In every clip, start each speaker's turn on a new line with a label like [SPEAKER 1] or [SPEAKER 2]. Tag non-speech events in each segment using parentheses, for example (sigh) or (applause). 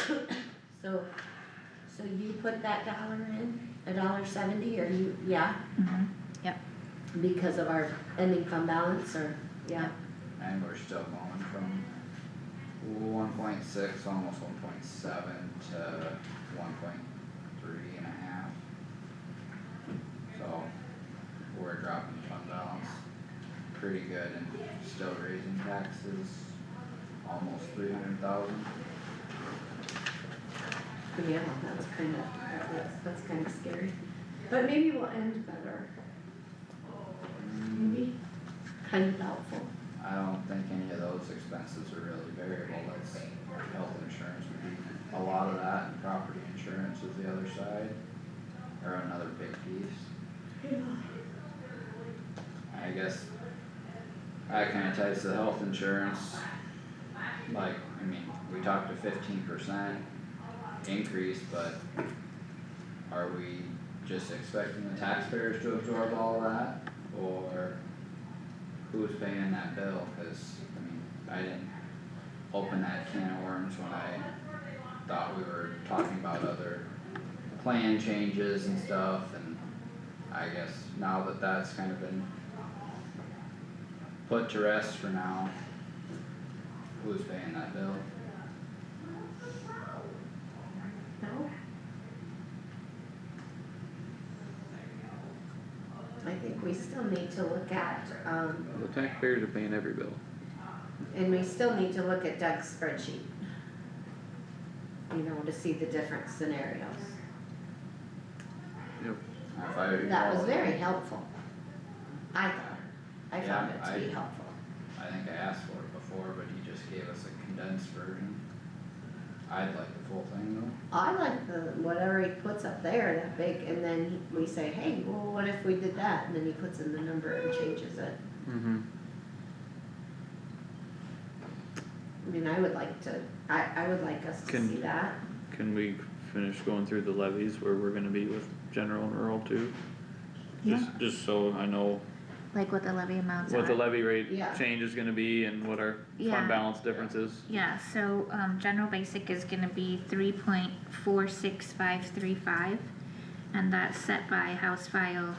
[SPEAKER 1] (coughs) so, so you put that dollar in, a dollar seventy, or you, yeah,
[SPEAKER 2] Mhm.
[SPEAKER 1] because of our ending fund balance, or, yeah,
[SPEAKER 3] And we're still going from one point six, almost one point seven to one point three and a half. So, we're dropping fund balance pretty good and still raising taxes almost three hundred thousand.
[SPEAKER 1] yeah, that's kind of,
[SPEAKER 4] That's, that's kinda scary, but maybe we'll end better, maybe,
[SPEAKER 1] kind of doubtful.
[SPEAKER 3] I don't think any of those expenses are really variable, that's health insurance would be, a lot of that and property insurance is the other side. Or another big piece, I guess. That kinda ties to the health insurance. Like, I mean, we talked a fifteen percent increase, but. Are we just expecting the taxpayers to absorb all that, or? who's paying that bill, cause, I mean, I didn't open that can of worms when I thought we were talking about other plan changes and stuff, and I guess now that that's kind of been put to rest for now, who's paying that bill?
[SPEAKER 4] no?
[SPEAKER 1] I think we still need to look at, um,
[SPEAKER 5] The taxpayers are paying every bill.
[SPEAKER 1] and we still need to look at Doug's spreadsheet. You know, to see the different scenarios,
[SPEAKER 3] If I recall.
[SPEAKER 1] that was very helpful. I thought, I found
[SPEAKER 3] Yeah,
[SPEAKER 1] it to be
[SPEAKER 3] I-
[SPEAKER 1] helpful.
[SPEAKER 3] I think I asked for it before, but he just gave us a condensed version. I'd like the full thing though.
[SPEAKER 1] I like the, whatever he puts up there, that big, and then he- we say, hey, well, what if we did that, and then he puts in the number and changes it.
[SPEAKER 5] Mm-hmm.
[SPEAKER 1] I mean, I would like to, I, I would like us to
[SPEAKER 5] Can-
[SPEAKER 1] see that,
[SPEAKER 5] Can we finish going through the levies where we're gonna be with general and rural too? Just, just so I know
[SPEAKER 2] Like what the levy amounts are.
[SPEAKER 5] what the levy rate
[SPEAKER 1] Yeah.
[SPEAKER 5] change is gonna be and what our
[SPEAKER 2] Yeah.
[SPEAKER 5] fund balance difference is.
[SPEAKER 2] Yeah, so, um, general basic is gonna be three point four six five three five. And that's set by House File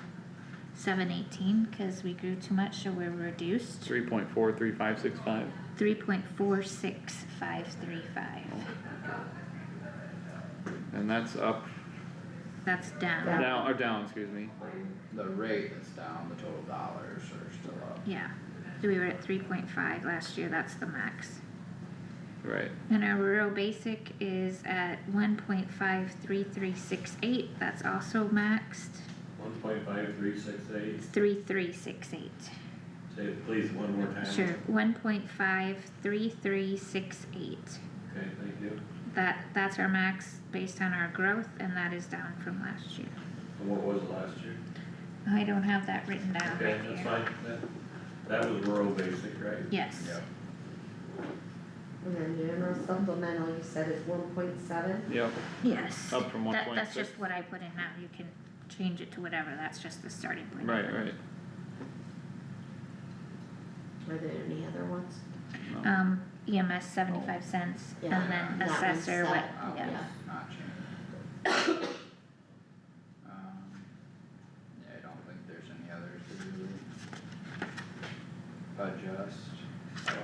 [SPEAKER 2] seven eighteen, cause we grew too much, so we're reduced.
[SPEAKER 5] Three point four three five six five.
[SPEAKER 2] Three point four six five three five,
[SPEAKER 5] And that's up,
[SPEAKER 2] that's down,
[SPEAKER 1] Yeah.
[SPEAKER 5] down, or down, excuse me.
[SPEAKER 3] The rate is down, the total dollars are still up.
[SPEAKER 2] yeah. So we were at three point five last year, that's the max.
[SPEAKER 5] Right.
[SPEAKER 2] And our rural basic is at one point five three three six eight, that's also maxed,
[SPEAKER 6] One point five three six eight,
[SPEAKER 2] three three six eight.
[SPEAKER 6] say it please one more time.
[SPEAKER 2] Sure, one point five three three six eight.
[SPEAKER 6] Okay, thank you.
[SPEAKER 2] That, that's our max based on our growth and that is down from last year.
[SPEAKER 6] And what was it last year?
[SPEAKER 2] I don't have that written down
[SPEAKER 6] Okay,
[SPEAKER 2] right
[SPEAKER 6] that's
[SPEAKER 2] here.
[SPEAKER 6] fine, that, that was rural basic, right?
[SPEAKER 2] Yes,
[SPEAKER 3] Yep.
[SPEAKER 1] and then general supplemental, you said is one point seven,
[SPEAKER 5] Yep,
[SPEAKER 2] yes.
[SPEAKER 5] up from Oh, one
[SPEAKER 2] That,
[SPEAKER 5] point
[SPEAKER 2] that's
[SPEAKER 5] six.
[SPEAKER 2] just what I put in now, you can change it to whatever, that's just the starting point.
[SPEAKER 5] Right, right.
[SPEAKER 1] are there any other ones?
[SPEAKER 5] No.
[SPEAKER 2] Um, EMS seventy-five cents and
[SPEAKER 1] Yeah.
[SPEAKER 2] then
[SPEAKER 1] That one's
[SPEAKER 2] assessor, what,
[SPEAKER 1] set.
[SPEAKER 3] That
[SPEAKER 2] yeah,
[SPEAKER 3] one's not changed.
[SPEAKER 1] (coughs)
[SPEAKER 3] Um, yeah, I don't think there's any others to do. Adjust, so,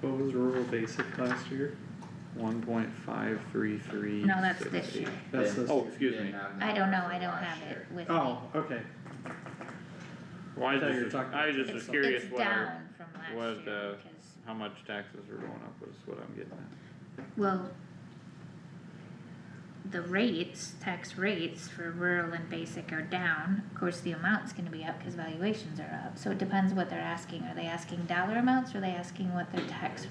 [SPEAKER 5] What was rural basic last year? One point five three three.
[SPEAKER 2] no, that's this year.
[SPEAKER 5] That's,
[SPEAKER 3] Didn't-
[SPEAKER 5] this- oh, excuse
[SPEAKER 3] didn't
[SPEAKER 5] me.
[SPEAKER 3] have
[SPEAKER 2] I don't know, I
[SPEAKER 3] numbers
[SPEAKER 2] don't
[SPEAKER 3] for last
[SPEAKER 2] have it
[SPEAKER 3] year.
[SPEAKER 2] with me.
[SPEAKER 7] Oh, okay.
[SPEAKER 5] Why,
[SPEAKER 7] I thought you
[SPEAKER 5] just,
[SPEAKER 7] were talking
[SPEAKER 5] I
[SPEAKER 7] about-
[SPEAKER 5] just was
[SPEAKER 2] It's-
[SPEAKER 5] curious
[SPEAKER 2] it's
[SPEAKER 5] what our-
[SPEAKER 2] down from
[SPEAKER 5] what,
[SPEAKER 2] last year
[SPEAKER 5] uh,
[SPEAKER 2] because
[SPEAKER 5] how much taxes are going up is what I'm getting at.
[SPEAKER 2] Well. The rates, tax rates for rural and basic are down, of course, the amount's gonna be up cause valuations are up, so it depends what they're asking, are they asking dollar amounts, or are they asking what their tax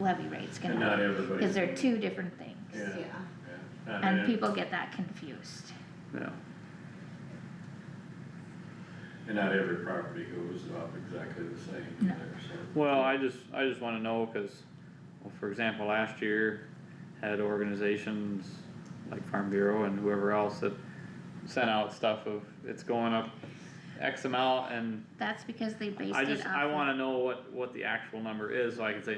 [SPEAKER 2] levy rate's
[SPEAKER 6] And not
[SPEAKER 2] gonna be?
[SPEAKER 6] everybody.
[SPEAKER 2] Cause they're two different things,
[SPEAKER 6] Yeah.
[SPEAKER 1] Yeah,
[SPEAKER 6] not
[SPEAKER 2] and
[SPEAKER 6] ev-
[SPEAKER 2] people get that confused,
[SPEAKER 5] Yeah,
[SPEAKER 6] And not every property goes up exactly the same
[SPEAKER 2] No.
[SPEAKER 6] either, so.
[SPEAKER 5] well, I just, I just wanna know, cause, well, for example, last year had organizations like Farm Bureau and whoever else that sent out stuff of, it's going up X amount and
[SPEAKER 2] that's because they based it
[SPEAKER 5] I
[SPEAKER 2] off.
[SPEAKER 5] just, I
[SPEAKER 2] of-
[SPEAKER 5] wanna know what, what the actual number is, so I can say,